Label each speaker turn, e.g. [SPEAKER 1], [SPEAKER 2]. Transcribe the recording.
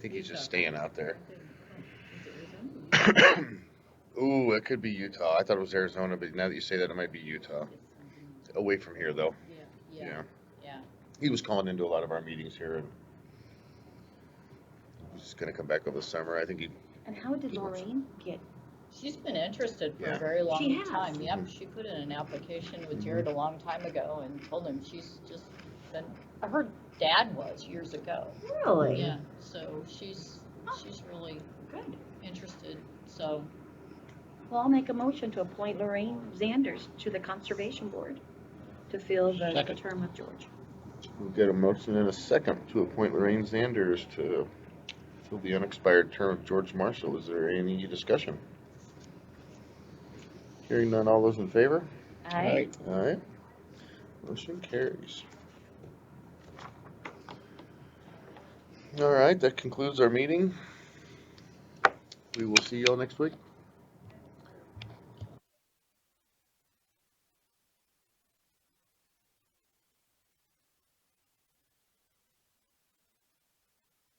[SPEAKER 1] think he's just staying out there. Ooh, it could be Utah. I thought it was Arizona, but now that you say that, it might be Utah. Away from here, though.
[SPEAKER 2] Yeah, yeah.
[SPEAKER 1] He was calling into a lot of our meetings here, and he's just gonna come back over the summer. I think he.
[SPEAKER 3] And how did Lorraine get,
[SPEAKER 2] She's been interested for
[SPEAKER 1] Yeah.
[SPEAKER 2] a very
[SPEAKER 3] She
[SPEAKER 2] long
[SPEAKER 3] has.
[SPEAKER 2] time. Yep,
[SPEAKER 1] Mhm.
[SPEAKER 2] she put in an application
[SPEAKER 1] Mhm.
[SPEAKER 2] with Jared a long time ago and told him she's just been, her dad was years ago.
[SPEAKER 3] really?
[SPEAKER 2] Yeah, so she's, she's really
[SPEAKER 3] Good.
[SPEAKER 2] interested, so.
[SPEAKER 3] Well, I'll make a motion to appoint Lorraine Zanders to the Conservation Board to fill the- the
[SPEAKER 4] Second.
[SPEAKER 3] term of George.
[SPEAKER 1] We've got a motion and a second to appoint Lorraine Zanders to fill the unexpired term of George Marshall. Is there any discussion? Hearing none, all those in favor?
[SPEAKER 3] I,
[SPEAKER 1] Alright, motion carries. Alright, that concludes our meeting. We will see y'all next week.